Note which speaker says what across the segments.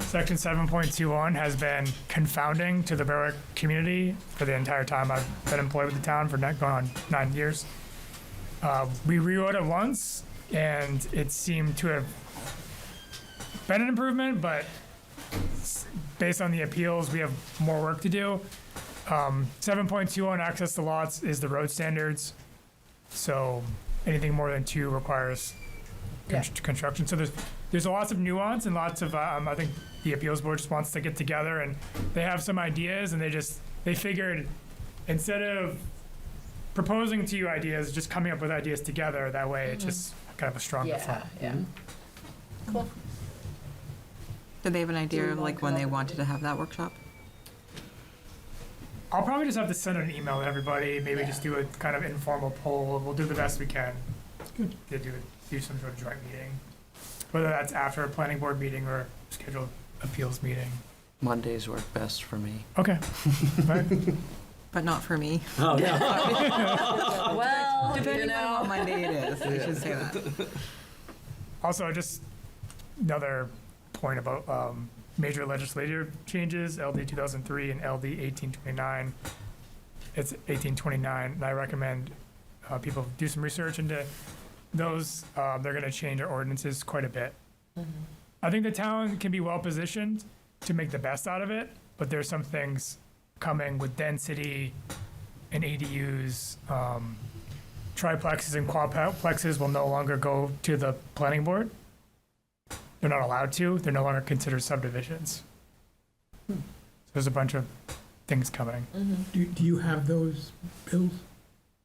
Speaker 1: Section 7.21 has been confounding to the Berwick community for the entire time I've been employed with the town for not going on nine years. Uh, we rewrote it once, and it seemed to have been an improvement, but s- based on the appeals, we have more work to do. Um, 7.21 access to lots is the road standards. So anything more than two requires con- construction. So there's there's lots of nuance and lots of um, I think the appeals board just wants to get together and they have some ideas and they just they figured instead of proposing to you ideas, just coming up with ideas together. That way, it's just kind of a stronger
Speaker 2: Yeah,
Speaker 1: front.
Speaker 2: yeah.
Speaker 3: Did they have an
Speaker 2: we
Speaker 3: idea of
Speaker 2: wanna
Speaker 3: like when they
Speaker 2: come up
Speaker 3: wanted
Speaker 2: with
Speaker 3: to have that workshop?
Speaker 1: I'll probably just have to send an email to everybody. Maybe
Speaker 2: Yeah.
Speaker 1: just do a kind of informal poll. We'll do the best we can to do do some sort of joint meeting, whether that's after a planning board meeting or scheduled appeals meeting.
Speaker 4: Mondays work best for me.
Speaker 1: Okay. Right.
Speaker 3: But not for me.
Speaker 4: Oh, no.
Speaker 2: Well, you
Speaker 3: Depending on
Speaker 2: know,
Speaker 3: what Monday it is, I should say that.
Speaker 1: Also, just another point about um, major legislative changes, LD 2003 and LD 1829. It's 1829, and I recommend uh, people do some research into those. Uh, They're going to change our ordinances quite a bit. I think the town can be well-positioned to make the best out of it, but there's some things coming with density and ADUs, um, triplexes and quadplexes will no longer go to the planning board. They're not allowed to. They're no longer considered subdivisions. So there's a bunch of things coming.
Speaker 5: Do, do you have those bills?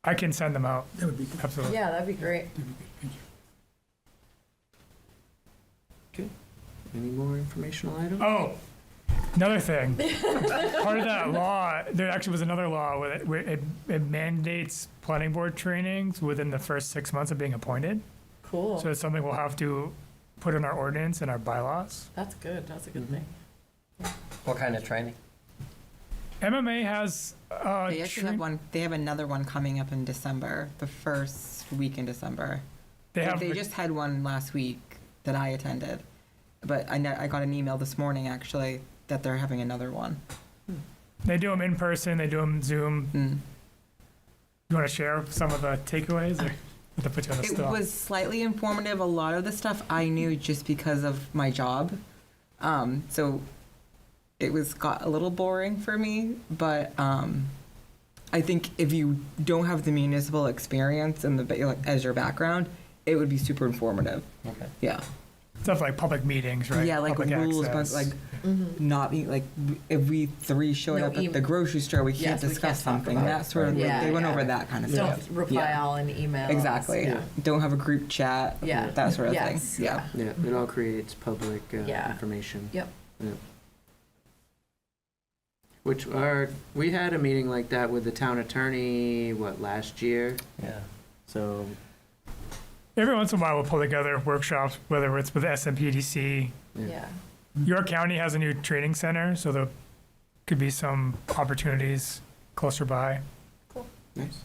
Speaker 1: I can send them out.
Speaker 5: That would be good.
Speaker 1: Absolutely.
Speaker 2: yeah, that'd be great.
Speaker 5: That would be good. Thank you.
Speaker 4: Any more informational items?
Speaker 1: Oh, another thing. Part of that law, there actually was another law where it, where it, it mandates planning board trainings within the first six months of being appointed.
Speaker 2: Cool.
Speaker 1: So it's something we'll have to put in our ordinance and our bylaws.
Speaker 2: That's good. That's a good thing.
Speaker 6: What kind of training?
Speaker 1: MMA has uh,
Speaker 3: They actually have
Speaker 1: train-
Speaker 3: one, they have another one coming up in December, the first week in December.
Speaker 1: they
Speaker 3: Like,
Speaker 1: have
Speaker 3: They just had one last week that I attended, but I know, I got an email this morning actually that they're having another one.
Speaker 1: They do them in person. They do them Zoom.
Speaker 3: Mm.
Speaker 1: You want to share some of the takeaways, or to put you on the
Speaker 3: It
Speaker 1: spot?
Speaker 3: was slightly informative. A lot of the stuff I knew just because of my job. Um, so it was got a little boring for me, but um, I think if you don't have the municipal experience and the ba- like, as your background, it would be super informative.
Speaker 6: Okay.
Speaker 3: Yeah.
Speaker 1: Stuff like public meetings, right?
Speaker 3: Yeah, like
Speaker 1: public
Speaker 3: rules,
Speaker 1: access.
Speaker 3: but like not be like if we three showed
Speaker 2: No
Speaker 3: up at
Speaker 2: email.
Speaker 3: the grocery store, we can't
Speaker 2: Yes, we
Speaker 3: discuss
Speaker 2: can't talk
Speaker 3: something.
Speaker 2: about it.
Speaker 3: That sort of
Speaker 2: Yeah,
Speaker 3: like, they went
Speaker 2: yeah.
Speaker 3: over that kind of
Speaker 2: Don't
Speaker 3: stuff.
Speaker 2: reply
Speaker 3: Yeah.
Speaker 2: all in email.
Speaker 3: Exactly.
Speaker 2: Yeah.
Speaker 3: Don't have a group chat.
Speaker 2: Yeah.
Speaker 3: That sort of
Speaker 2: Yes,
Speaker 3: thing. Yeah.
Speaker 2: yeah.
Speaker 4: Yeah, it all creates public uh,
Speaker 2: Yeah.
Speaker 4: information.
Speaker 2: Yep.
Speaker 4: Yeah. Which are, we had a meeting like that with the town attorney, what, last year?
Speaker 6: Yeah.
Speaker 4: So,
Speaker 1: every once in a while, we'll pull together workshops, whether it's with SMPDC.
Speaker 2: Yeah.
Speaker 3: Mm-hmm.
Speaker 1: York County has a new training center, so there could be some opportunities closer by.
Speaker 4: nice.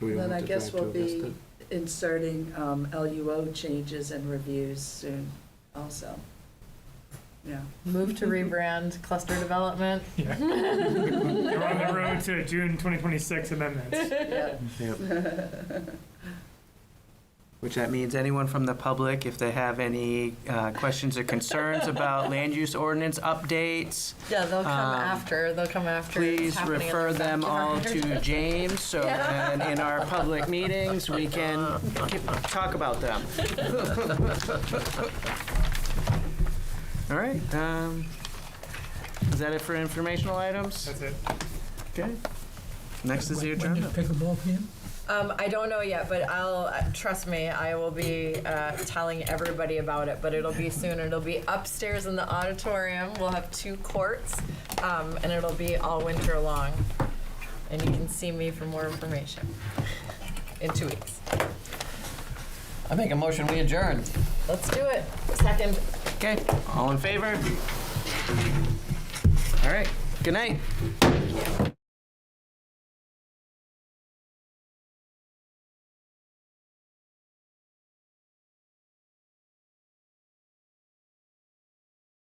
Speaker 4: So we don't
Speaker 7: Then I
Speaker 4: have to
Speaker 7: guess
Speaker 4: drive to
Speaker 7: we'll
Speaker 4: Augusta.
Speaker 7: be inserting um, LUO changes and reviews soon also. Yeah.
Speaker 2: Move to rebrand cluster development.
Speaker 1: Yeah. We're on the road to June 2026 amendments.
Speaker 4: Which that means anyone from the public, if they have any uh, questions or concerns about land use ordinance updates,
Speaker 2: Yeah, they'll come
Speaker 4: Um,
Speaker 2: after. They'll come after. it's
Speaker 4: please
Speaker 2: happening in
Speaker 4: refer
Speaker 2: the
Speaker 4: them all
Speaker 2: backyard.
Speaker 4: to James, so then in our public meetings, we can ki- talk about them. All right, um, is that it for informational items?
Speaker 1: That's it.
Speaker 4: Okay. Next is the
Speaker 5: When
Speaker 4: agenda.
Speaker 5: does pickleball begin?
Speaker 2: Um, I don't know yet, but I'll uh, trust me. I will be uh, telling everybody about it, but it'll be soon. It'll be upstairs in the auditorium. We'll have two courts, um, and it'll be all winter long. And you can see me for more information in two weeks.
Speaker 6: I make a motion, we adjourn.
Speaker 2: Let's do it. Second.
Speaker 4: Okay, all in favor? All right, good night.